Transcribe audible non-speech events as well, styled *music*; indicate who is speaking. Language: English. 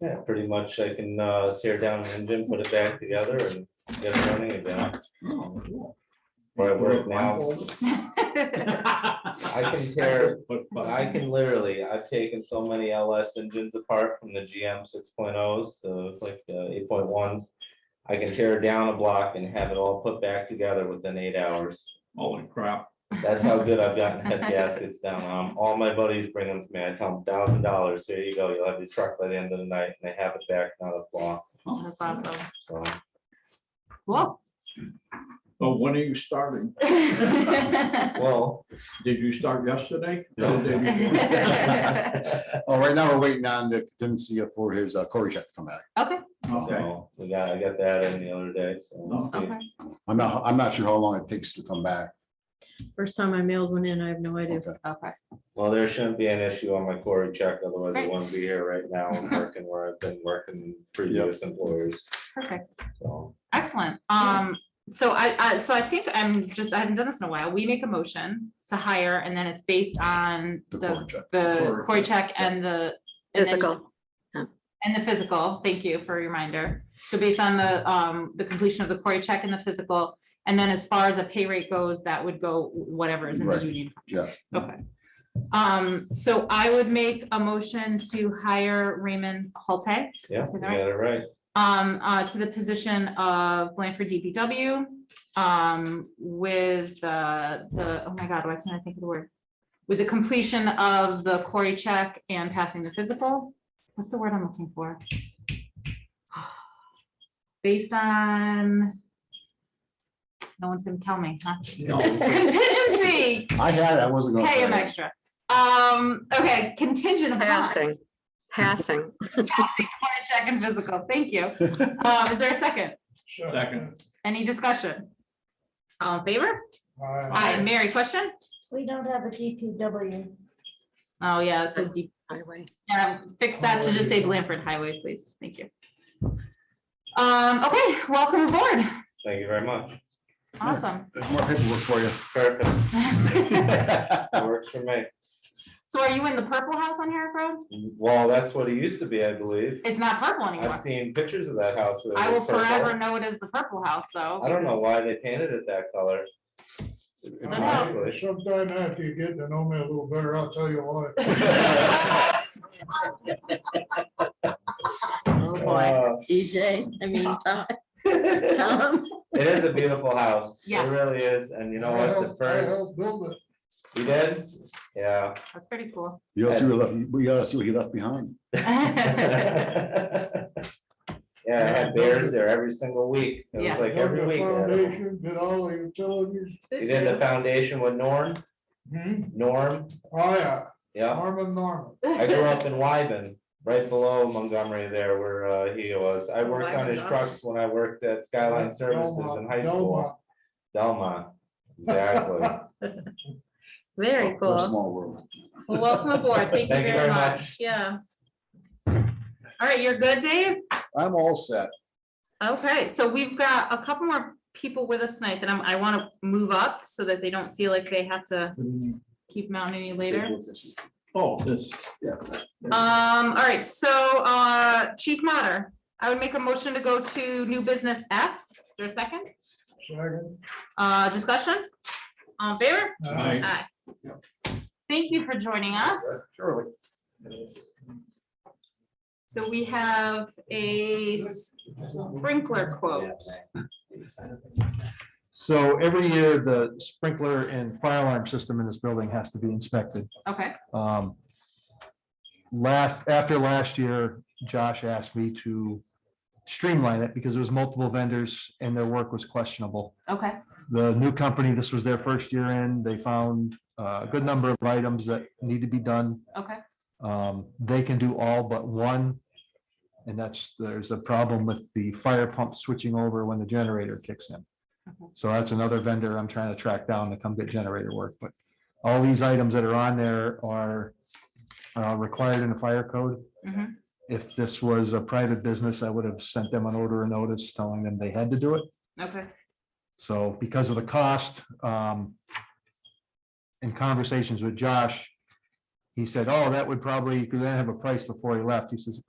Speaker 1: Yeah, pretty much I can uh, tear down an engine, put it back together and get it running again.
Speaker 2: Oh, cool.
Speaker 1: Where I work now,
Speaker 3: *laughs*
Speaker 2: *laughs*
Speaker 1: I can tear,
Speaker 2: But
Speaker 1: I can literally, I've taken so many LS engines apart from the GM six to like the eight point ones. I can tear down a block and have it all put back together within eight hours.
Speaker 2: Holy crap.
Speaker 1: That's how good I've gotten head gaskets down. Um, all my buddies bring them to me. I tell them thousand dollars, here you go, you'll have your truck by the end of the night and they have it back, not a flaw,
Speaker 2: Oh,
Speaker 3: That's awesome.
Speaker 1: so.
Speaker 3: Cool. *laughs*
Speaker 2: But when are you starting?
Speaker 1: Well,
Speaker 2: Did you
Speaker 1: *laughs*
Speaker 2: start yesterday?
Speaker 1: No.
Speaker 2: The day before?
Speaker 4: Well, Oh, right now, we're waiting on the contingency for his uh, Cory check to come back.
Speaker 3: Okay,
Speaker 2: Okay.
Speaker 1: So we got, I got that in the other day, so. we'll see.
Speaker 3: okay.
Speaker 4: I'm not, I'm not sure how long it takes to come back.
Speaker 5: First time I mailed one in, I have no idea.
Speaker 4: Okay.
Speaker 3: Okay.
Speaker 1: Well, there shouldn't be an issue on my quarry check, otherwise I
Speaker 3: Great.
Speaker 1: wouldn't be here right now
Speaker 3: *laughs*
Speaker 1: and working where I've been working previous employers,
Speaker 3: Perfect.
Speaker 1: so.
Speaker 3: Excellent. Um, so I, I, so I think I'm just, I haven't done this in a while. We make a motion to hire and then it's based on
Speaker 4: The
Speaker 3: the,
Speaker 4: Cory check.
Speaker 3: the
Speaker 2: Cory
Speaker 3: Cory check and the. and then-
Speaker 6: Physical.
Speaker 3: And the physical, thank you for a reminder. So based on the, um, the completion of the Cory check and the physical, and then as far as a pay rate goes, that would go whatever is in the
Speaker 4: Right,
Speaker 3: union.
Speaker 4: yeah.
Speaker 3: contract. Okay. Um, so I would make a motion to hire Raymond Holte,
Speaker 1: Yeah,
Speaker 3: Is
Speaker 1: you
Speaker 3: that
Speaker 1: got it right.
Speaker 3: um, uh, to the position of Blanford DPW, um, with the, the, oh my God, why can't I think of the word? With the completion of the Cory check and passing the physical. What's the word I'm looking for? *sighs* Based on, no one's gonna tell me, huh?
Speaker 1: *laughs*
Speaker 2: No.
Speaker 3: Contingency,
Speaker 4: *laughs* I had, it, I wasn't gonna
Speaker 3: pay him
Speaker 4: say. it.
Speaker 3: extra. Um, okay, contingent upon
Speaker 6: Passing, passing.
Speaker 3: Cory check and physical, thank you. Um, is there a second?
Speaker 2: Second.
Speaker 3: Any discussion? All in favor? Aye, Mary, question?
Speaker 7: We don't have a DPW.
Speaker 3: Oh, yeah, it says deep,
Speaker 6: highway.
Speaker 3: yeah, fix that to just say Blanford Highway, please, thank you. Um, okay, welcome aboard,
Speaker 1: Thank you very much.
Speaker 3: awesome. *laughs*
Speaker 4: There's more paperwork for you.
Speaker 1: Perfect.
Speaker 4: That
Speaker 1: That works for me.
Speaker 3: So are you in the purple house on Herrick Road?
Speaker 1: Well, that's what it used to be, I believe.
Speaker 3: It's not purple
Speaker 1: I've
Speaker 3: anymore.
Speaker 1: seen pictures of that house. that
Speaker 3: I will
Speaker 1: was purple.
Speaker 3: forever know it as the purple house, though.
Speaker 1: I don't know why they painted it that color.
Speaker 3: Somehow.
Speaker 1: Honestly.
Speaker 8: Sometime after you get to know me a little better, I'll tell you
Speaker 1: *laughs*
Speaker 8: why.
Speaker 5: Oh, boy.
Speaker 1: Uh, *laughs*
Speaker 5: DJ, I mean, Tom- Tom.
Speaker 1: It is a beautiful house.
Speaker 3: Yeah.
Speaker 1: It really is. And you know
Speaker 8: I
Speaker 1: what? The
Speaker 8: helped- I
Speaker 1: first,
Speaker 8: helped build it.
Speaker 1: you did?
Speaker 3: *laughs*
Speaker 1: Yeah. *laughs*
Speaker 3: That's pretty cool.
Speaker 4: You gotta see what left, you gotta see what he left behind.
Speaker 1: Yeah, I had bears there every single week. It
Speaker 3: Yeah.
Speaker 1: was like
Speaker 8: Dug
Speaker 1: every
Speaker 8: the
Speaker 1: week. uh, they had them.
Speaker 8: foundation, did all the utilities.
Speaker 1: You did
Speaker 3: *laughs*
Speaker 1: the foundation with Norm,
Speaker 8: Hmm,
Speaker 1: Norm,
Speaker 8: oh yeah,
Speaker 1: yeah.
Speaker 8: Norman Norman.
Speaker 1: I grew up in Wyben, right below Montgomery there where uh, he was.
Speaker 3: Oh,
Speaker 1: I worked on his
Speaker 5: Wyben's
Speaker 1: trucks when I worked at Skyline Services in
Speaker 8: Delmont,
Speaker 1: high school. Delma, exactly.
Speaker 3: *laughs*
Speaker 5: Very
Speaker 4: What a
Speaker 5: cool.
Speaker 4: Small world.
Speaker 3: Well, Welcome aboard, thank you
Speaker 1: Oh, Thank you
Speaker 3: very
Speaker 1: very
Speaker 3: much,
Speaker 1: much.
Speaker 3: yeah. All right, you're good, Dave?
Speaker 4: I'm all set.
Speaker 3: Okay, so we've got a couple more people with us tonight that I'm, I want to move up so that they don't feel like they have to keep mounting any later.
Speaker 2: Oh, this.
Speaker 3: Um, all right, so, uh, Chief Mater, I would make a motion to go to new business F. Is there a second?
Speaker 8: Second.
Speaker 3: Uh, discussion? All in favor?
Speaker 2: Aye.
Speaker 3: Aye. Thank you for joining us.
Speaker 4: Surely.
Speaker 3: So we have a sprinkler quote.
Speaker 9: So every year, the sprinkler and fire alarm system in this building has to be inspected.
Speaker 3: Okay,
Speaker 9: Um, Last, after last year, Josh asked me to streamline it because there was multiple vendors and their work was questionable.
Speaker 3: okay,
Speaker 9: The new company, this was their first year in, they found uh, a good number of items that need to be done.
Speaker 3: okay,
Speaker 9: Um, They can do all but one. And that's, there's a problem with the fire pump switching over when the generator kicks in.
Speaker 3: Okay.
Speaker 9: So that's another vendor I'm trying to track down to come get generator work, but all these items that are on there are uh, required in the fire code.
Speaker 3: Mhm.
Speaker 9: If this was a private business, I would have sent them an order of notice telling them they had to do it.
Speaker 3: okay,
Speaker 9: So because of the cost, um, in conversations with Josh, he said, oh, that would probably, because I didn't have a price before he left. He says,